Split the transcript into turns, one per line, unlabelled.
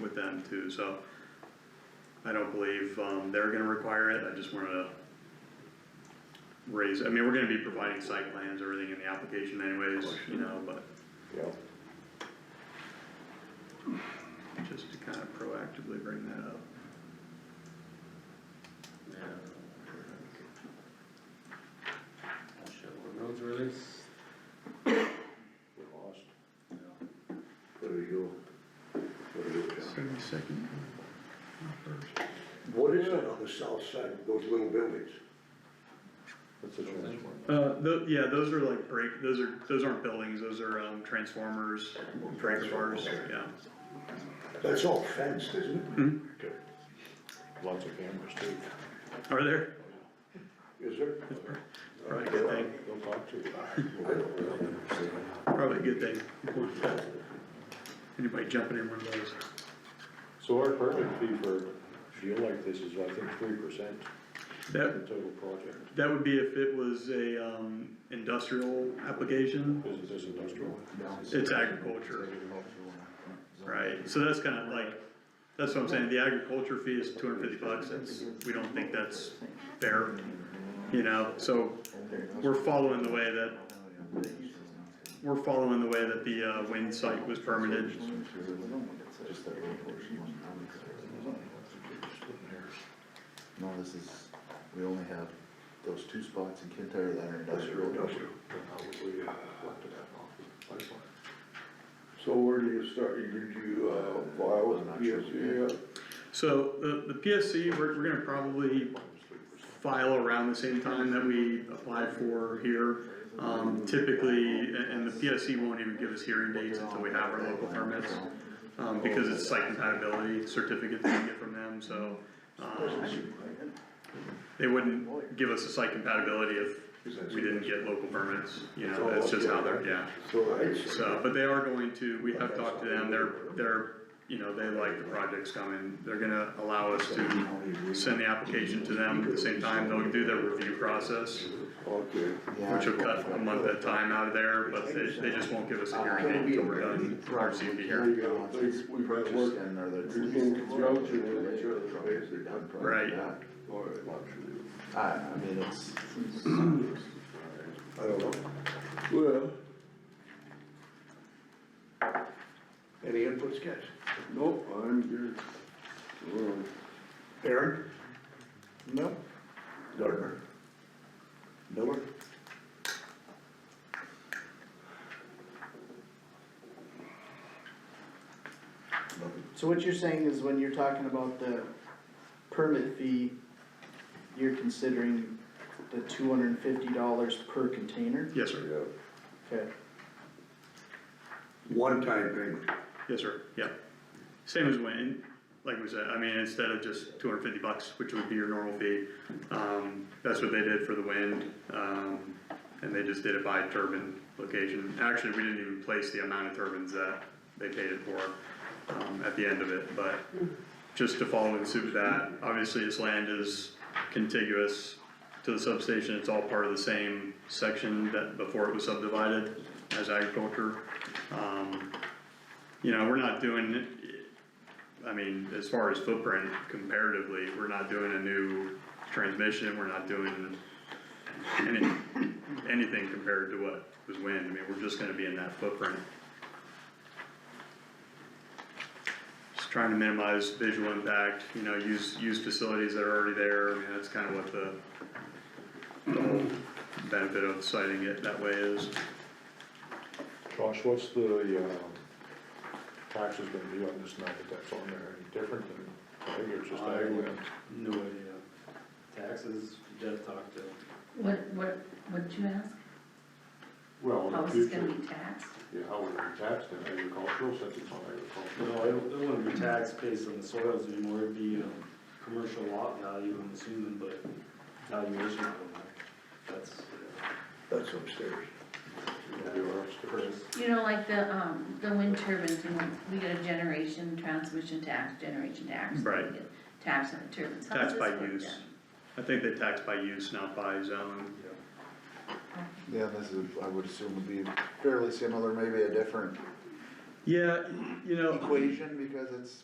with them too, so. I don't believe, um, they're gonna require it, I just wanted to raise, I mean, we're gonna be providing site plans, everything in the application anyways, you know, but
yeah.
just to kind of proactively bring that up.
Yeah. Shit, what roads were these?
We lost.
Yeah.
There you go. There you go.
Seventy-second.
What is that on the south side of those little buildings?
That's a transformer.
Uh, tho- yeah, those are like break, those are, those aren't buildings, those are, um, transformers, transformers, yeah.
That's all fenced, isn't it?
Okay. Lots of cameras too.
Are there?
Is there?
Probably a good thing,
They'll talk to you.
I don't know.
probably a good thing. Anybody jumping in one of those?
So our permit fee for a deal like this is, I think, three percent of the
That,
total project.
that would be if it was a, um, industrial application,
Is this industrial?
it's agriculture, right? So that's kinda like, that's what I'm saying, the agriculture fee is two hundred fifty bucks, that's, we don't think that's fair, you know, so we're following the way that, we're following the way that the, uh, wind site was permitted,
No, this is, we only have those two spots in Kintyre that are industrial.
So where do you start, You- did you, uh, file
I'm
with
not sure.
PSC yet?
So the, the PSC, we're, we're gonna probably file around the same time that we apply for here. Um, typically, and, and the PSC won't even give us hearing dates until we have our local permits, um, because it's site compatibility certificate that we get from them, so, um, they wouldn't give us a site compatibility if we didn't get local permits, you know, that's just how they're, yeah.
So it's,
So, but they are going to, we have talked to them, they're, they're, you know, they like the projects coming, they're gonna allow us to send the application to them at the same time, they'll do their review process,
okay,
Yeah.
which will cut a month at a time out of there, but they, they just won't give us a hearing date until we're done, our CP
there
hearing.
you go, They- we probably
Purchased
work
and are the.
We can route you with the church, basically.
Done prior to
Right.
that.
for it.
I, I mean, it's,
I don't know. Well. Any inputs, guys?
Nope, I'm good. Well,
Aaron?
no,
Gardner.
Miller,
So what you're saying is when you're talking about the permit fee, you're considering the two hundred and fifty dollars per container?
Yes, sir,
Yeah.
Okay,
One-time payment.
yes, sir, yeah. Same as when, like we said, I mean, instead of just two hundred fifty bucks, which would be your normal fee, um, that's what they did for the wind, um, and they just did it by turbine location. Actually, we didn't even place the amount of turbines that they paid it for, um, at the end of it, but just to follow in suit with that, obviously this land is contiguous to the substation, it's all part of the same section that before it was subdivided as agriculture. Um, you know, we're not doing, I mean, as far as footprint comparatively, we're not doing a new transmission, we're not doing any, anything compared to what was wind, I mean, we're just gonna be in that footprint. Just trying to minimize visual impact, you know, use, use facilities that are already there, I mean, that's kinda what the the whole benefit of citing it that way is.
Josh, what's the, uh, taxes gonna be on this now that that's on there? Any different than, I think it's just ag land.
No idea. Taxes, Jeff talked to.
What, what, what did you ask?
Oh,
Well, in
How
the
is this gonna
future,
be taxed?
yeah, how would it be taxed in agricultural since it's on
No,
agricultural?
I don't, it wouldn't be taxed based on the soils anymore, it'd be, um, commercial lot value, I'm assuming, but valuation, I don't know. That's, uh,
That's upstairs.
It'll be on us to-
Chris,
You know, like the, um, the wind turbines, you know, we get a generation, transmission tax, generation tax. and we
Right.
get Tax on the turbines. How
Tax
does
by
this work
use.
then?
I think they tax by use, um, not by zone.
you know.
yeah, this is, I would assume would be fairly similar, maybe a different
Yeah, you know,
equation because it's